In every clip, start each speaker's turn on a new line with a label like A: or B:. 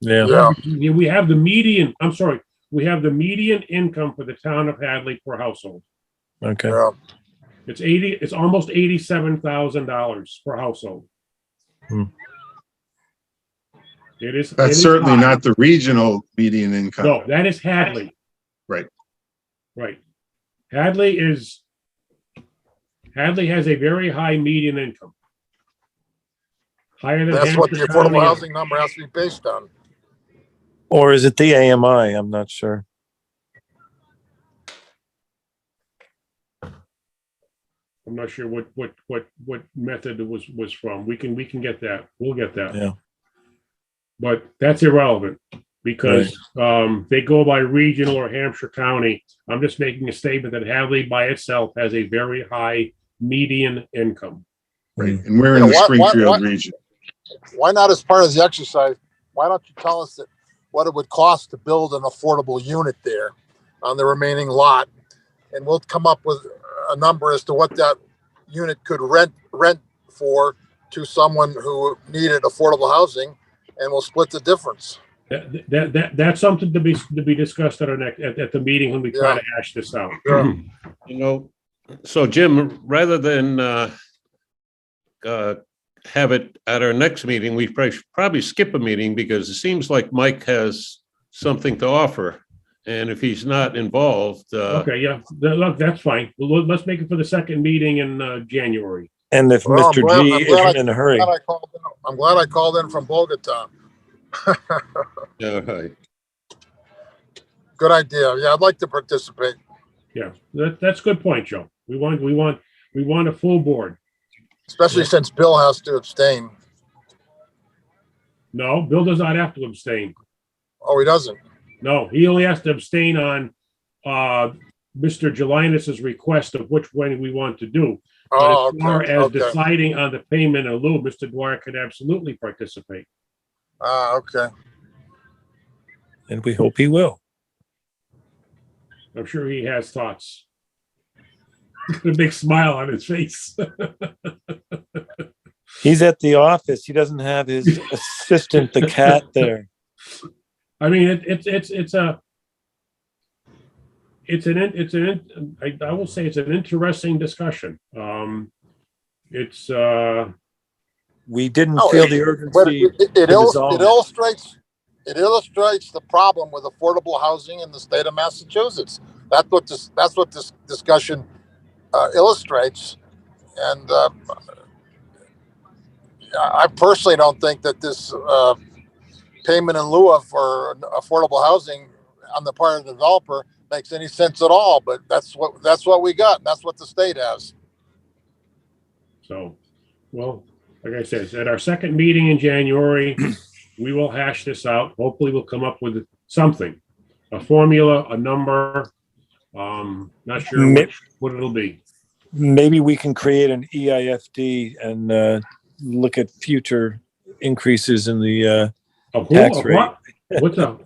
A: Yeah.
B: Yeah.
C: Yeah, we have the median, I'm sorry, we have the median income for the town of Hadley per household.
A: Okay.
B: Yeah,
C: It's eighty, it's almost eighty-seven thousand dollars per household.
A: Hmm.
C: It is. it
D: That's
C: is
D: certainly
C: high.
D: not the regional median income.
C: No, that is Hadley.
D: Right.
C: Right. Hadley is, Hadley has a very high median income. Higher than.
B: that's what the
C: Hampshire County
B: affordable
C: is.
B: housing number has to be based on.
A: Or is it the AMI? I'm not sure.
C: I'm not sure what, what, what, what method it was, was from. We can, we can get that. We'll get that.
A: Yeah.
C: But that's irrelevant because, um, they go by regional or Hampshire County. I'm just making a statement that Hadley by itself has a very high median income.
D: Right. And we're in
B: Yeah,
D: the
B: why- why- why-
D: Springfield region.
B: Why not as part of the exercise, why don't you tell us that what it would cost to build an affordable unit there on the remaining lot? And we'll come up with a number as to what that unit could rent, rent for to someone who needed affordable housing and we'll split the difference.
C: That, that, that, that's something to be, to be discussed at our next, at, at the meeting when we try
B: Yeah.
C: to hash this out.
B: Yeah.
E: You know, so Jim, rather than uh, uh, have it at our next meeting, we probably should probably skip a meeting because it seems like Mike has something to offer. And if he's not involved, uh,
C: Okay, yeah, Th- look, that's fine. Well, Let's make it for the second meeting in, uh, January.
A: And if
B: Well, I'm
A: Mr.
B: glad- I'm
A: G
B: glad I-
A: isn't in a hurry,
B: Glad I called in- I'm glad I called in from Bogota.
E: all right.
B: Good idea. Yeah, I'd like to participate.
C: Yeah, that, that's a good point, Joe. We want, we want, we want a full board.
B: Especially since Bill has to abstain.
C: No, Bill does not have to abstain.
B: Oh, he doesn't.
C: No, he only has to abstain on, uh, Mr. Jelinas's request of which one we want to do.
B: Oh,
C: But as far
B: okay.
C: as
B: Okay.
C: deciding on the payment in lieu, Mr. Dwyer could absolutely participate.
B: Ah, okay.
A: and we hope he will.
C: I'm sure he has thoughts. A big smile on his face.
A: He's at the office. He doesn't have his assistant, the cat, there.
C: I mean, it, it's, it's, it's a, it's an, in- it's an, in- I, I will say it's an interesting discussion. Um, it's, uh,
A: We didn't
B: Oh,
A: feel
B: it-
A: the
B: But
A: urgency.
B: it, it, it
A: to
B: il-
A: resolve
B: it
A: it.
B: illustrates, it illustrates the problem with affordable housing in the state of Massachusetts. That's what this, that's what this discussion uh, illustrates. And uh, I I personally don't think that this uh, payment in lieu of for affordable housing on the part of the developer makes any sense at all. But that's what, that's what we got. and That's what the state has.
C: So, well, like I said, at our second meeting in January, we will hash this out. Hopefully, we'll come up with something, a formula, a number. Um, not sure
A: Ma-
C: which- what it'll be.
A: Maybe we can create an E EIFD and uh, look at future increases in the. Uh,
C: A who,
A: Tax
C: a what? What's up?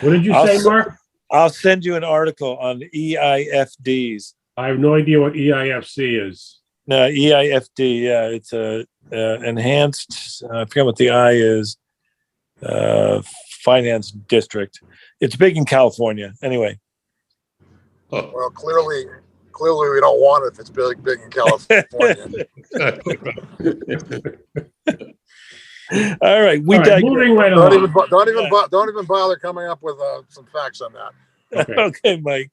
C: What did you
A: I'll
C: say,
A: s-
C: Mark?
A: I'll send you an article on E EIFDs.
C: I have no idea what EIFC is.
A: No, E EIFD, yeah, it's a uh, enhanced, uh, I forget what the I is, uh, finance district. It's big in California, anyway.
E: Oh,
B: Well, clearly, clearly we don't want it if it's big, big in California.
A: All right, we
C: All right,
A: digress.
C: moving right
B: Don't even,
C: along.
B: bo- don't even,
A: Yeah.
B: bo- don't even bother coming up with uh, some facts on that.
C: Okay.
A: Okay, Mike,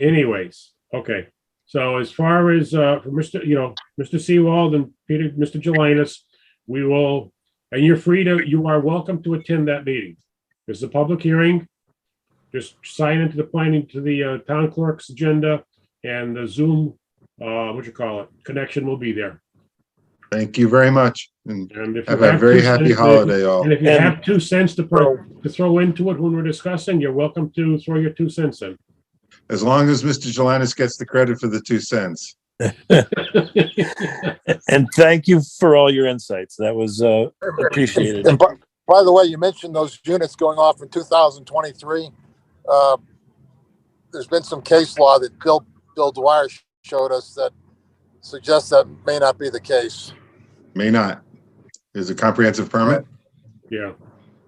C: Anyways, okay. So as far as, uh, for Mr., you know, Mr. Seawald and Peter, Mr. Jelinas, we will, and you're free to, you are welcome to attend that meeting. It's a public hearing. Just sign into the planning, to the, uh, town clerk's agenda and the Zoom, uh, what you call it, connection will be there.
D: Thank you very much. And
C: And if you
D: have a very
C: two
D: happy
C: cents to-
D: holiday all.
C: And if you
A: And- Oh.
C: have two cents to, pro- to throw into it when we're discussing, you're welcome to throw your two cents in.
D: As long as Mr. Jelinek gets the credit for the two cents.
A: and thank you for all your insights. That was uh, appreciated.
B: And by, by the way, you mentioned those units going off in 2023. Uh, there's been some case law that Bill, Bill Dwyer sh- showed us that suggests that may not be the case.
D: May not. Is a comprehensive permit?
C: Yeah,